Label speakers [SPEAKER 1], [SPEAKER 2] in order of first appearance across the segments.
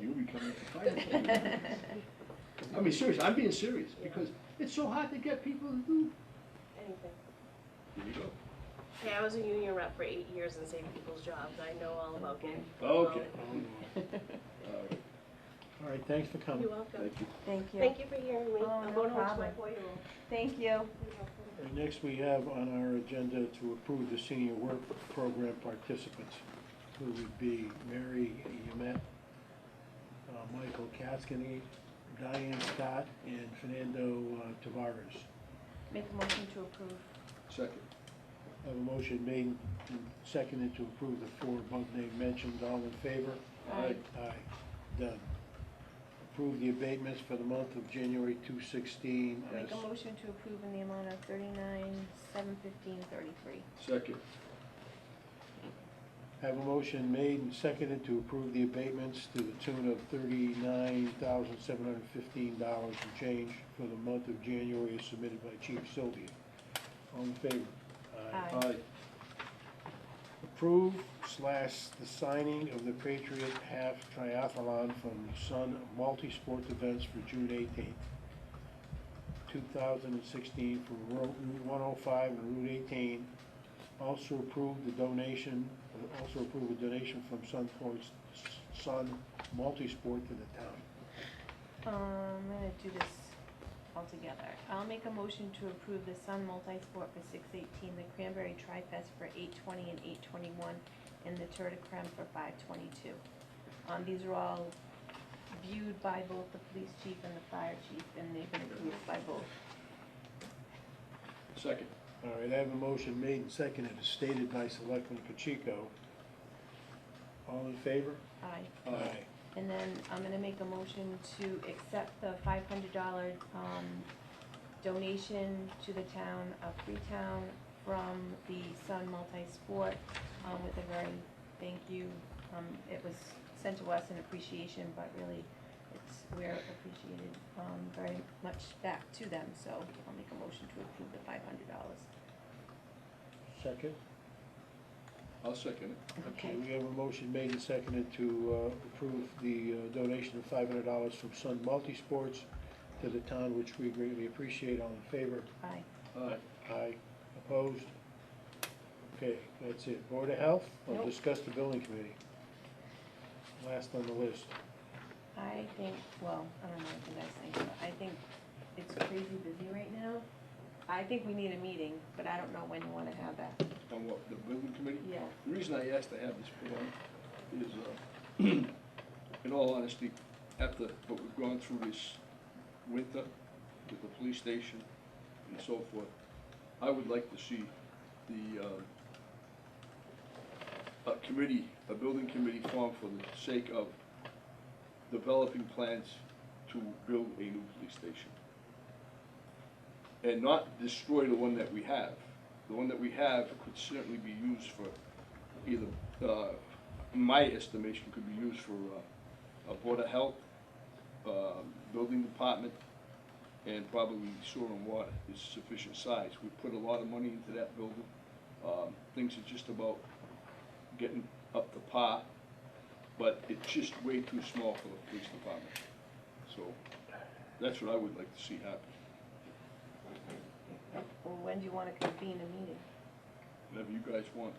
[SPEAKER 1] coming to fire. I mean, seriously, I'm being serious, because it's so hard to get people to do.
[SPEAKER 2] Anything.
[SPEAKER 1] Here you go.
[SPEAKER 2] Hey, I was a union rep for eight years and saved people's jobs. I know all about getting.
[SPEAKER 1] Okay. All right,
[SPEAKER 3] All right, thanks for coming.
[SPEAKER 2] You're welcome.
[SPEAKER 1] thank you.
[SPEAKER 4] Thank you.
[SPEAKER 2] Thank you for hearing me.
[SPEAKER 4] Oh,
[SPEAKER 2] I'm
[SPEAKER 4] no
[SPEAKER 2] going home to my
[SPEAKER 4] problem.
[SPEAKER 2] four-year-old.
[SPEAKER 4] Thank you.
[SPEAKER 2] You're welcome.
[SPEAKER 3] And next, we have on our agenda to approve the senior work program participants, who would be Mary Yumet, uh, Michael Kaskinen, Diane Scott, and Fernando uh, Tavares.
[SPEAKER 4] Make a motion to approve.
[SPEAKER 1] Second.
[SPEAKER 3] I Have a motion made and seconded to approve the four above named mentioned. All in favor?
[SPEAKER 4] Aye.
[SPEAKER 3] Aye. Done. Approve the abatements for the month of January 2016
[SPEAKER 4] Make
[SPEAKER 3] as
[SPEAKER 4] a motion to approve in the amount of thirty-nine, seven fifteen, thirty-three.
[SPEAKER 1] Second.
[SPEAKER 3] Have a motion made and seconded to approve the abatements to the tune of thirty-nine thousand seven hundred fifteen dollars and change for the month of January as submitted by Chief Sylvia. All in favor?
[SPEAKER 4] Aye.
[SPEAKER 1] Aye.
[SPEAKER 3] Approve slash the signing of the Patriot Half Triathlon from Sun Multi-Sport Events for June eighteenth, two thousand and sixteen from Ro- Route one oh five and Route eighteen. Also approve the donation, also approve a donation from Sun Points, Sun Multi-Sport to the town.
[SPEAKER 4] Um, I'm gonna do this all together. I'll make a motion to approve the Sun Multi-Sport for six eighteen, the Cranberry Tri-Fest for eight twenty and eight twenty-one, and the Tour de Creme for five twenty-two. Um, these are all viewed by both the police chief and the fire chief, and they've been approved by both.
[SPEAKER 1] Second.
[SPEAKER 3] All right, I have a motion made and seconded, as stated by Selectman Pacheco. All in favor?
[SPEAKER 4] Aye.
[SPEAKER 1] Aye.
[SPEAKER 4] And then I'm gonna make a motion to accept the five hundred dollar, um, donation to the town of Freetown from the Sun Multi-Sport, um, with a very thank you. Um, it was sent to us in appreciation, but really, it's, we're appreciated, um, very much back to them, so I'll make a motion to approve the five hundred dollars.
[SPEAKER 3] Second?
[SPEAKER 1] I'll second it.
[SPEAKER 3] Okay, we have a motion made and seconded to uh, approve the uh, donation of five hundred dollars from Sun Multisports to the town, which we greatly appreciate. All in favor?
[SPEAKER 4] Aye.
[SPEAKER 1] Aye.
[SPEAKER 3] Aye. Opposed? Okay, that's it. Board of Health, we'll
[SPEAKER 4] Nope.
[SPEAKER 3] discuss the building committee. Last on the list.
[SPEAKER 4] I think, well, I don't know what you guys think, but I think it's crazy busy right now. I think we need a meeting, but I don't know when you wanna have that.
[SPEAKER 1] On what, the building committee?
[SPEAKER 4] Yeah.
[SPEAKER 1] The reason I asked to have this put on is, uh, in all honesty, after what we've gone through this winter with the police station and so forth, I would like to see the, uh, a committee, a building committee formed for the sake of developing plans to build a new police station. And not destroy the one that we have. The one that we have could certainly be used for either, uh, in my estimation, could be used for uh, a Board of Health, um, Building Department, and probably sewer and water is sufficient size. We put a lot of money into that building. Um, Things are just about getting up to par, but it's just way too small for the police department. So that's what I would like to see happen,
[SPEAKER 4] Or when do you wanna convene a meeting?
[SPEAKER 1] whatever you guys want.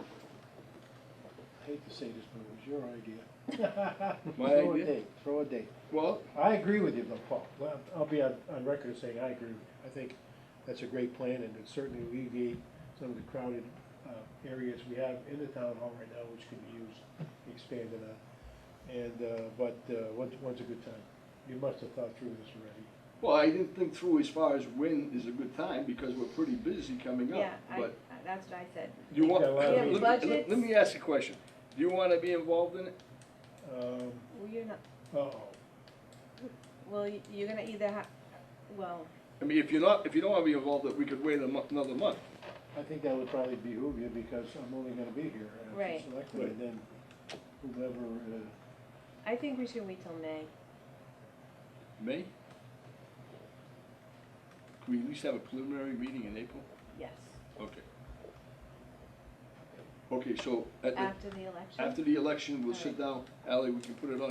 [SPEAKER 3] I hate to say this, but it was your idea.
[SPEAKER 1] My
[SPEAKER 3] Throw a
[SPEAKER 1] idea?
[SPEAKER 3] date, throw a date.
[SPEAKER 1] Well,
[SPEAKER 3] I agree with you though, Paul. Well, I'll be on, on record as saying I agree. with you. I think that's a great plan and it certainly alleviate some of the crowded uh, areas we have in the town hall right now, which could be used, expanded on. And, uh, but, uh, when's, when's a good time? You must have thought through this already.
[SPEAKER 1] well, I didn't think through as far as when is a good time, because we're pretty busy coming up.
[SPEAKER 4] Yeah, I,
[SPEAKER 1] But
[SPEAKER 4] I- that's what I said.
[SPEAKER 1] you want,
[SPEAKER 3] Yeah, well,
[SPEAKER 1] let me-
[SPEAKER 4] Yeah,
[SPEAKER 1] let me-
[SPEAKER 4] budgets.
[SPEAKER 1] let me ask you a question. Do you want to be involved in it?
[SPEAKER 3] Um,
[SPEAKER 4] Well, you're not,
[SPEAKER 3] uh-oh.
[SPEAKER 4] well, y- you're gonna either ha, well,
[SPEAKER 1] I mean, if you're not, if you don't want to be involved, we could wait a month, another month.
[SPEAKER 3] I think that would probably behoove you because I'm only gonna be here. and if you're
[SPEAKER 4] Right.
[SPEAKER 3] selected, And then whoever, uh,
[SPEAKER 4] I think we should wait till May.
[SPEAKER 1] May? Can we at least have a preliminary meeting in April?
[SPEAKER 4] Yes.
[SPEAKER 1] Okay. Okay, so at the-
[SPEAKER 4] After the election?
[SPEAKER 1] after the election, we'll sit
[SPEAKER 4] All
[SPEAKER 1] down. Ally, we can put it on